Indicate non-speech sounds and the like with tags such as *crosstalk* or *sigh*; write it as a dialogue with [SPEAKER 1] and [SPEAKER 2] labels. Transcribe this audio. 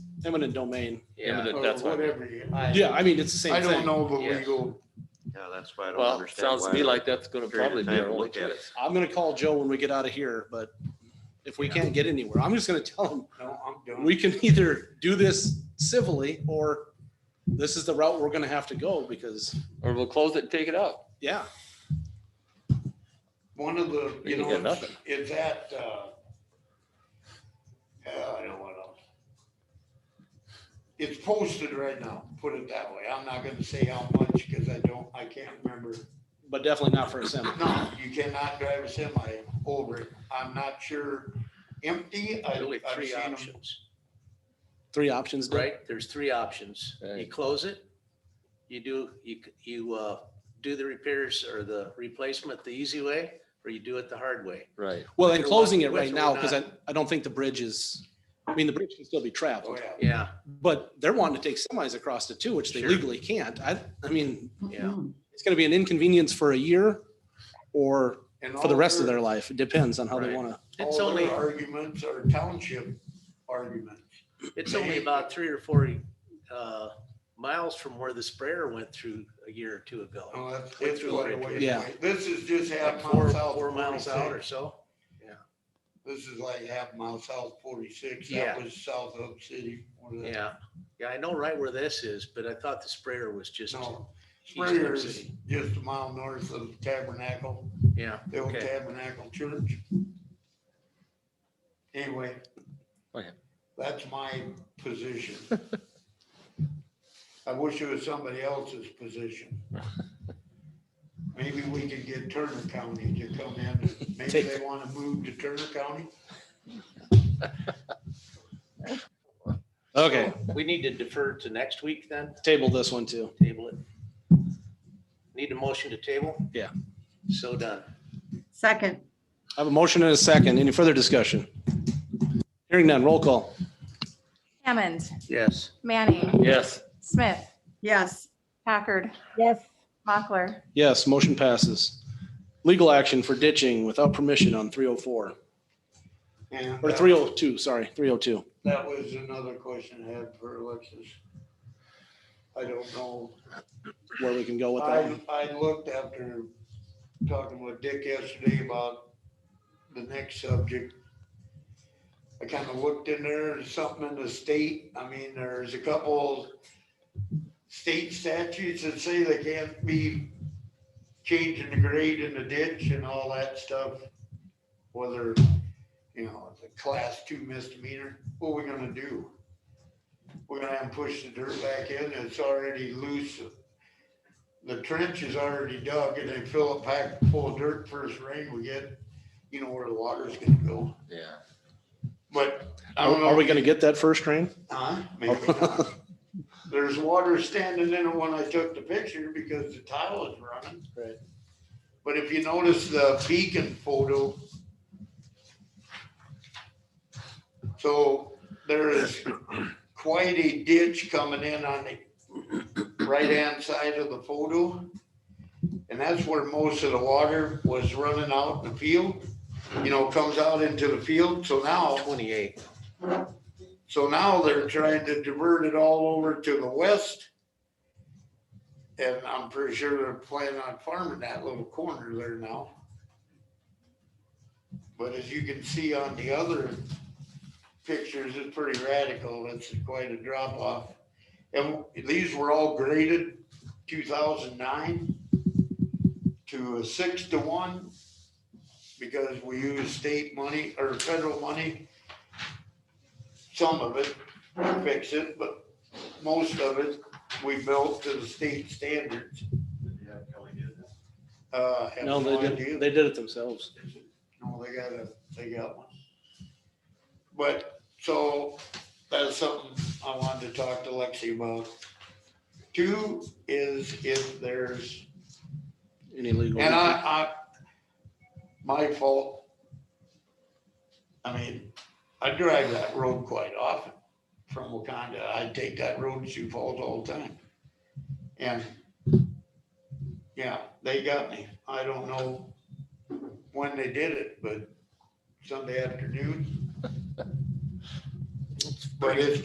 [SPEAKER 1] eminent domain.
[SPEAKER 2] Yeah,
[SPEAKER 3] Or
[SPEAKER 2] that's what.
[SPEAKER 3] Whatever you.
[SPEAKER 1] Yeah, I mean, it's the same
[SPEAKER 3] I
[SPEAKER 1] thing.
[SPEAKER 3] don't know the
[SPEAKER 2] Yeah.
[SPEAKER 3] legal.
[SPEAKER 4] Yeah, that's why I don't
[SPEAKER 2] Well,
[SPEAKER 4] understand.
[SPEAKER 2] sounds to me
[SPEAKER 4] why
[SPEAKER 2] like that's gonna
[SPEAKER 4] period of
[SPEAKER 2] probably be
[SPEAKER 4] time
[SPEAKER 2] our
[SPEAKER 4] to
[SPEAKER 2] only
[SPEAKER 4] look at it.
[SPEAKER 2] choice.
[SPEAKER 1] I'm gonna call Joe when we get out of here, but if we can't get anywhere, I'm just gonna tell him,
[SPEAKER 3] No, I'm done.
[SPEAKER 1] we can *laughs* either do this civilly or this is the route we're gonna have to go because,
[SPEAKER 2] Or we'll close it and take it out.
[SPEAKER 1] yeah,
[SPEAKER 3] One of the,
[SPEAKER 2] We
[SPEAKER 3] you
[SPEAKER 2] can
[SPEAKER 3] know,
[SPEAKER 2] get
[SPEAKER 3] it's-
[SPEAKER 2] nothing.
[SPEAKER 3] it's that, uh, uh, I don't want to. It's posted right now, put it that way. I'm not gonna say how much because I don't, I can't remember.
[SPEAKER 1] but definitely not for a semi.
[SPEAKER 3] No, you cannot drive a semi over it. I'm not sure. Empty, I,
[SPEAKER 5] Really
[SPEAKER 3] I've
[SPEAKER 5] three
[SPEAKER 3] seen 'em.
[SPEAKER 5] options,
[SPEAKER 1] Three options, Dick?
[SPEAKER 5] right? There's three options. You
[SPEAKER 2] Right.
[SPEAKER 5] close it, you do, you, you, uh, do the repairs or the replacement the easy way, or you do it the hard way.
[SPEAKER 2] Right.
[SPEAKER 1] Well, and
[SPEAKER 5] Either
[SPEAKER 1] closing
[SPEAKER 5] one,
[SPEAKER 1] it right
[SPEAKER 5] which
[SPEAKER 1] now,
[SPEAKER 5] we're
[SPEAKER 1] because I,
[SPEAKER 5] not.
[SPEAKER 1] I don't think the bridge is, I mean, the bridge can still be
[SPEAKER 3] Oh,
[SPEAKER 1] traveled,
[SPEAKER 3] yeah.
[SPEAKER 5] Yeah,
[SPEAKER 1] but they're wanting to take semis across it too, which they
[SPEAKER 5] Sure.
[SPEAKER 1] legally can't. I, I mean,
[SPEAKER 5] yeah.
[SPEAKER 1] it's gonna be an inconvenience for a year or
[SPEAKER 3] And
[SPEAKER 1] for the
[SPEAKER 3] all
[SPEAKER 1] rest of
[SPEAKER 3] their-
[SPEAKER 1] their life. It depends on how they
[SPEAKER 5] Right.
[SPEAKER 1] wanna,
[SPEAKER 5] It's
[SPEAKER 3] all their
[SPEAKER 5] only,
[SPEAKER 3] Arguments are township arguments.
[SPEAKER 5] it's only about three or four, uh, miles from where the sprayer went through a year or two ago.
[SPEAKER 3] Oh, that's,
[SPEAKER 5] Went
[SPEAKER 3] it's
[SPEAKER 5] through
[SPEAKER 3] quite a
[SPEAKER 5] Bridgewater.
[SPEAKER 3] ways
[SPEAKER 1] Yeah.
[SPEAKER 3] away. This is just
[SPEAKER 5] Like
[SPEAKER 3] half
[SPEAKER 5] four,
[SPEAKER 3] mile south.
[SPEAKER 5] four miles out or
[SPEAKER 3] 46.
[SPEAKER 5] so.
[SPEAKER 3] This is like half mile south forty-six.
[SPEAKER 5] Yeah.
[SPEAKER 3] That was south of city. one of the-
[SPEAKER 5] Yeah, yeah, I know right where this is, but I thought the sprayer was just,
[SPEAKER 3] No,
[SPEAKER 5] East of
[SPEAKER 3] Sprayer's
[SPEAKER 5] city.
[SPEAKER 3] just a mile north of Tabernacle,
[SPEAKER 5] yeah,
[SPEAKER 3] the old
[SPEAKER 5] Okay.
[SPEAKER 3] Tabernacle Church. Anyway.
[SPEAKER 2] Okay.
[SPEAKER 3] That's my
[SPEAKER 1] *laughs*
[SPEAKER 3] position. I wish it was somebody else's
[SPEAKER 1] *laughs*
[SPEAKER 3] position. Maybe we could get Turner County to come in. and Maybe
[SPEAKER 1] Take-
[SPEAKER 3] they want to move to Turner County.
[SPEAKER 1] okay,
[SPEAKER 5] So We need to defer to next week then,
[SPEAKER 1] table this one too.
[SPEAKER 5] table it. Need a motion to table?
[SPEAKER 1] Yeah.
[SPEAKER 5] So done.
[SPEAKER 6] Second,
[SPEAKER 1] I have a motion and a second. Any further discussion? Hearing none, roll call.
[SPEAKER 7] Hammond,
[SPEAKER 5] Yes.
[SPEAKER 7] Manning,
[SPEAKER 2] Yes.
[SPEAKER 7] Smith,
[SPEAKER 6] yes.
[SPEAKER 7] Packard,
[SPEAKER 8] yes.
[SPEAKER 7] Mochler.
[SPEAKER 1] Yes, motion passes. Legal action for ditching without permission on three oh four,
[SPEAKER 3] And
[SPEAKER 1] or
[SPEAKER 3] that-
[SPEAKER 1] three oh two, sorry, three oh two.
[SPEAKER 3] That was another question I had for Alexis. I don't know.
[SPEAKER 1] Where we can go with that
[SPEAKER 3] I,
[SPEAKER 1] one.
[SPEAKER 3] I looked after talking with Dick yesterday about the next subject. I kind of looked in there, there's something in the state, I mean, there's a couple state statutes that say they can't be changing the grade in the ditch and all that stuff. Whether, you know, it's a class two misdemeanor, what are we gonna do? We're gonna have to push the dirt back in, it's already loose the trench is already dug and they fill it back full of dirt first rain we get, you know where the water's gonna go.
[SPEAKER 2] Yeah.
[SPEAKER 3] But I
[SPEAKER 1] Are
[SPEAKER 3] don't know.
[SPEAKER 1] are we gonna get that first rain?
[SPEAKER 3] Huh? Maybe
[SPEAKER 1] *laughs*
[SPEAKER 3] not. There's water standing in it when I took the picture because the tile is running.
[SPEAKER 1] Right.
[SPEAKER 3] But if you notice the beacon photo. So there is quite a ditch coming in on the right-hand side of the photo. And that's where most of the water was running out in the field, you know, comes out into the field. So now
[SPEAKER 5] Twenty-eight.
[SPEAKER 3] so now they're trying to divert it all over to the west. And I'm pretty sure they're planning on farming that little corner there now. But as you can see on the other pictures, it's pretty radical. It's quite a drop off. And these were all graded two thousand nine to a six to one because we use state money or federal money some of it, fix it, but most of it, we built to the state standards. Uh, have
[SPEAKER 1] No,
[SPEAKER 3] no
[SPEAKER 1] they
[SPEAKER 3] idea.
[SPEAKER 1] did, they did it themselves.
[SPEAKER 3] No, they got a, they got one. But, so, that's something I wanted to talk to Lexi about. Two is if there's
[SPEAKER 1] Any legal.
[SPEAKER 3] and I, I, my fault. I mean, I drive that road quite often from Wakanda. I take that road to Sioux Falls all the time. And, yeah, they got me. I don't know when they did it, but Sunday afternoon. But it's